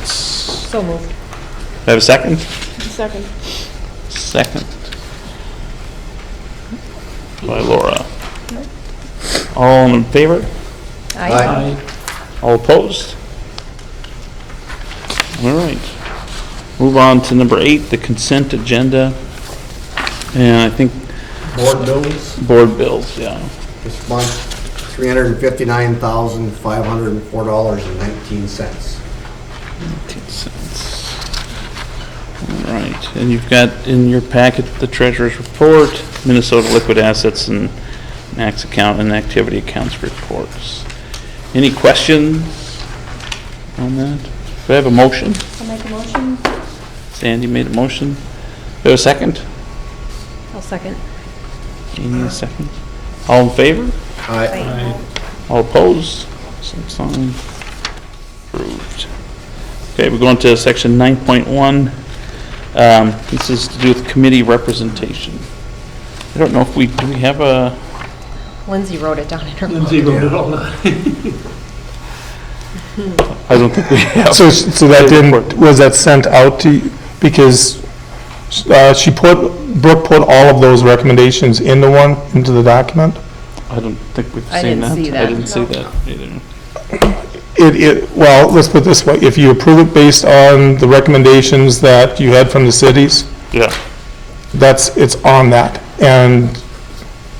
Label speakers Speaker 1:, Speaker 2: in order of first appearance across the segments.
Speaker 1: minutes.
Speaker 2: So moved.
Speaker 1: Do I have a second?
Speaker 2: Second.
Speaker 1: Second. By Laura. All in favor?
Speaker 3: Aye.
Speaker 1: All opposed? All right. Move on to number eight, the consent agenda. And I think
Speaker 3: Board bills,
Speaker 1: board bills, yeah.
Speaker 3: this month, $359,504.19.
Speaker 1: cents. All right, and you've got in your packet the treasurer's report, Minnesota liquid assets and max account and activity accounts reports. Any questions on that? Do I have a motion?
Speaker 2: I'll make a motion.
Speaker 1: Sandy made a motion. Do I have a second?
Speaker 2: I'll second.
Speaker 1: Jeannie, a second. All in favor?
Speaker 3: Aye.
Speaker 1: All opposed? Same sign. Approved. Okay, we're going to section 9.1. Um, This is to do with committee representation. I don't know if we, do we have a,
Speaker 2: Lindsay wrote it down in her.
Speaker 1: I don't think we have.
Speaker 4: So, so that didn't, was that sent out to, you? because uh, she put, Brooke put all of those recommendations into one, into the document?
Speaker 1: I don't think we've
Speaker 2: I
Speaker 1: seen
Speaker 2: didn't
Speaker 1: that.
Speaker 2: see
Speaker 1: I
Speaker 2: that.
Speaker 1: didn't see that either.
Speaker 4: It, it, well, let's put it this way, if you approve it based on the recommendations that you had from the cities,
Speaker 1: Yeah.
Speaker 4: that's, it's on that. And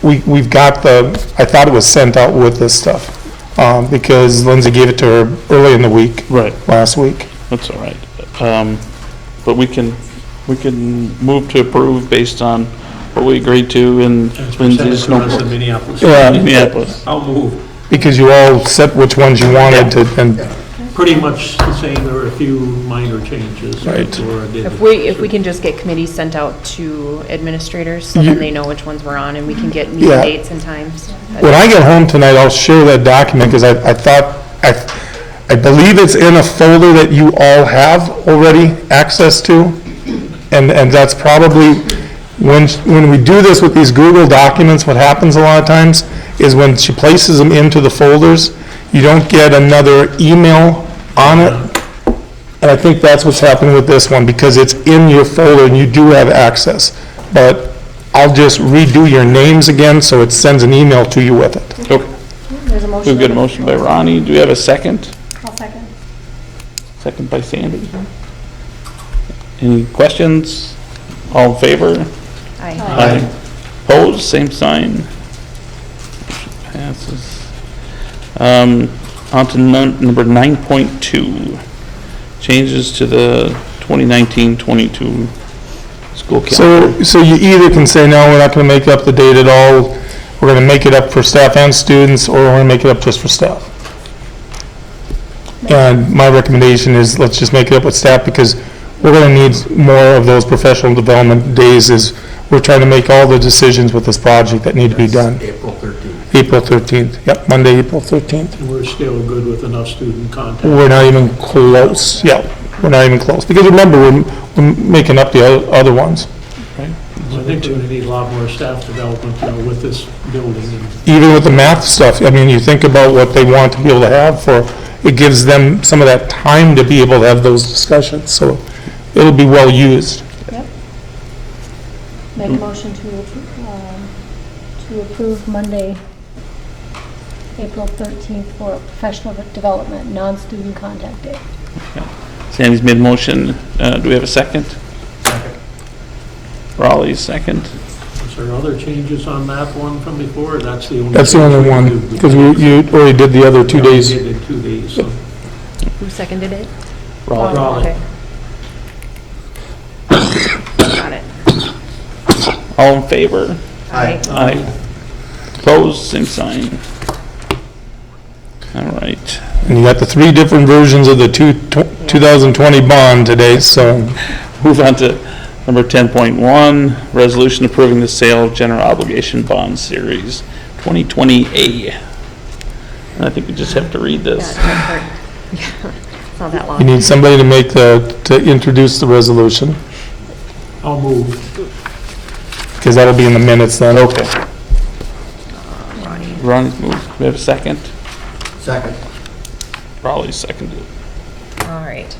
Speaker 4: we, we've got the, I thought it was sent out with this stuff, um, because Lindsay gave it to her early in the week,
Speaker 1: Right,
Speaker 4: last week.
Speaker 1: that's all right. Um, But we can, we can move to approve based on what we agreed to in Lindsay's
Speaker 5: in
Speaker 1: notebook. Uh,
Speaker 5: Minneapolis.
Speaker 1: Minneapolis.
Speaker 5: I'll move.
Speaker 4: Because you all set which ones you wanted to, and
Speaker 5: Pretty much the same, there were a few minor changes.
Speaker 4: Right.
Speaker 5: that Laura did.
Speaker 6: If we, if we can just get committees sent out to administrators, so then they know which ones we're on, and we can get meeting
Speaker 4: Mm-hmm. Yeah.
Speaker 6: dates and times.
Speaker 4: When I get home tonight, I'll share that document, because I, I thought, I, I believe it's in a folder that you all have already access to, and, and that's probably, when, when we do this with these Google documents, what happens a lot of times is when she places them into the folders, you don't get another email on it, and I think that's what's happening with this one, because it's in your folder and you do have access. But I'll just redo your names again, so it sends an email to you with it.
Speaker 1: Okay.
Speaker 2: There's a motion.
Speaker 1: We've got a motion by Ronnie. Do we have a second?
Speaker 2: I'll second.
Speaker 1: Second by Sandy. Any questions? All in favor?
Speaker 6: I,
Speaker 1: Opposed, same sign. Motion Passes. Um, on to nun- number 9.2, changes to the 2019-22 school calendar.
Speaker 4: So, so you either can say, no, we're not gonna make up the date at all, we're gonna make it up for staff and students, or we're gonna make it up just for staff. And my recommendation is, let's just make it up with staff, because we're gonna need more of those professional development days, is we're trying to make all the decisions with this project that need to be done.
Speaker 3: April 13th.
Speaker 4: April 13th, yep, Monday, April 13th.
Speaker 5: And we're still good with enough student contact.
Speaker 4: We're not even close, yeah, we're not even close, because remember, we're, we're making up the oth- other ones.
Speaker 5: I think we're gonna need a lot more staff development you know, with this building. and
Speaker 4: Even with the math stuff, I mean, you think about what they want to be able to have for, it gives them some of that time to be able to have those discussions, so it'll be well used.
Speaker 7: Make a motion to, appro- um, to approve Monday, April 13th for professional development, non-student contact day.
Speaker 1: Sandy's made a motion. Uh, do we have a second? Raleigh's second.
Speaker 5: Is there other changes on that one from before? That's the only.
Speaker 4: That's the only one, because we, you already did the other two
Speaker 5: Yeah, we
Speaker 4: days.
Speaker 5: did it two days, so.
Speaker 6: who seconded it?
Speaker 1: Raleigh.
Speaker 5: Raleigh.
Speaker 6: Okay. Got it.
Speaker 1: All in favor?
Speaker 3: Aye.
Speaker 1: Aye. Opposed, same sign. All right.
Speaker 4: And you got the three different versions of the two, tw- 2020 bond today, so
Speaker 1: Move on to number 10.1, resolution approving the sale of general obligation bond series 2020A. And I think we just have to read this.
Speaker 6: Yeah, It's not that
Speaker 4: you
Speaker 6: long.
Speaker 4: need somebody to make the, to introduce the resolution.
Speaker 5: I'll move.
Speaker 4: Because that'll be in the minutes then. Okay.
Speaker 1: Ronnie's moved. We have a second?
Speaker 3: Second.
Speaker 1: Raleigh's seconded.
Speaker 6: All All right.